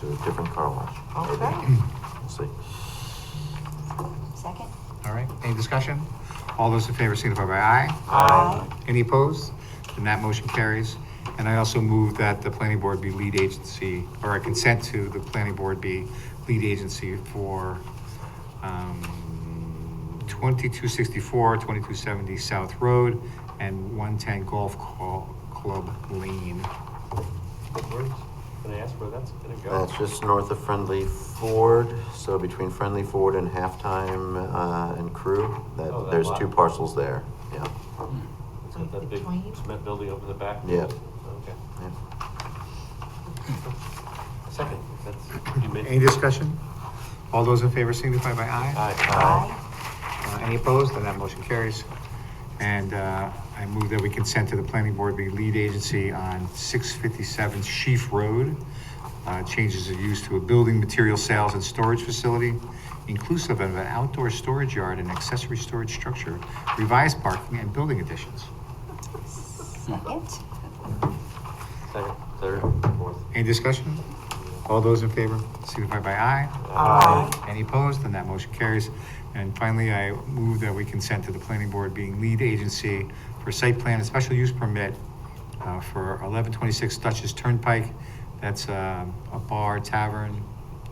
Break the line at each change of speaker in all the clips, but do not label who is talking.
to a different car wash. Maybe.
Okay.
We'll see.
Second?
All right, any discussion? All those in favor signify by aye.
Aye.
Any opposed? Then that motion carries. And I also move that the planning board be lead agency, or I consent to the planning board be lead agency for um, 2264, 2270 South Road, and 110 Golf Cl- Club Lane.
Where's, can I ask where that's gonna go?
That's Uh, just north of Friendly Ford, so between Friendly Ford and Halftime uh, and Crew, that,
Oh, that
there's
lot.
two parcels there, yeah.
Is that that big
Between?
cement building over the back?
Yeah.
Okay.
yeah.
Second, that's, you made.
Any discussion? All those in favor signify by aye.
Aye.
Aye.
Uh, Any opposed? Then that motion carries. And uh, I move that we consent to the planning board be lead agency on 657 Sheaf Road. uh, Changes of use to a building material sales and storage facility, inclusive of an outdoor storage yard and accessory storage structure, revised parking and building additions.
Second?
Second, third, fourth.
Any discussion? All those in favor signify by aye.
Aye.
Any opposed? Then that motion carries. And finally, I move that we consent to the planning board being lead agency for site plan and special use permit uh, for 1126 Dutchess Turnpike. That's um, a bar tavern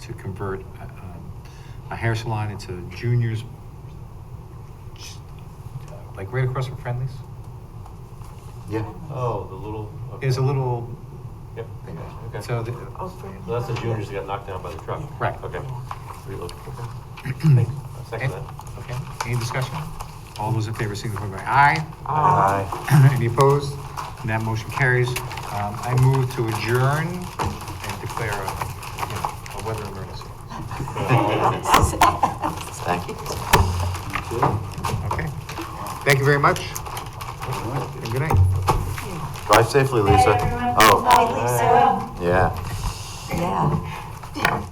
to convert uh, um, a hair salon into juniors, like right across from Friendly's.
Yeah,
Oh, the little. okay.
There's a little,
Yep, okay.
so, the-
Oh, for-
Well, that's the juniors that got knocked down by the truck.
Right.
Okay. Reload. Okay. Thanks. I Second that.
okay, any discussion? All those in favor signify by aye.
Aye.
Any opposed? And that motion carries. Um, I move to adjourn and declare a, you know, a weather emergency.
thank you.
Okay. Thank you very much. And good night.
Drive safely, Lisa.
everyone.
Oh,
Bye, Lisa.
yeah.
Yeah.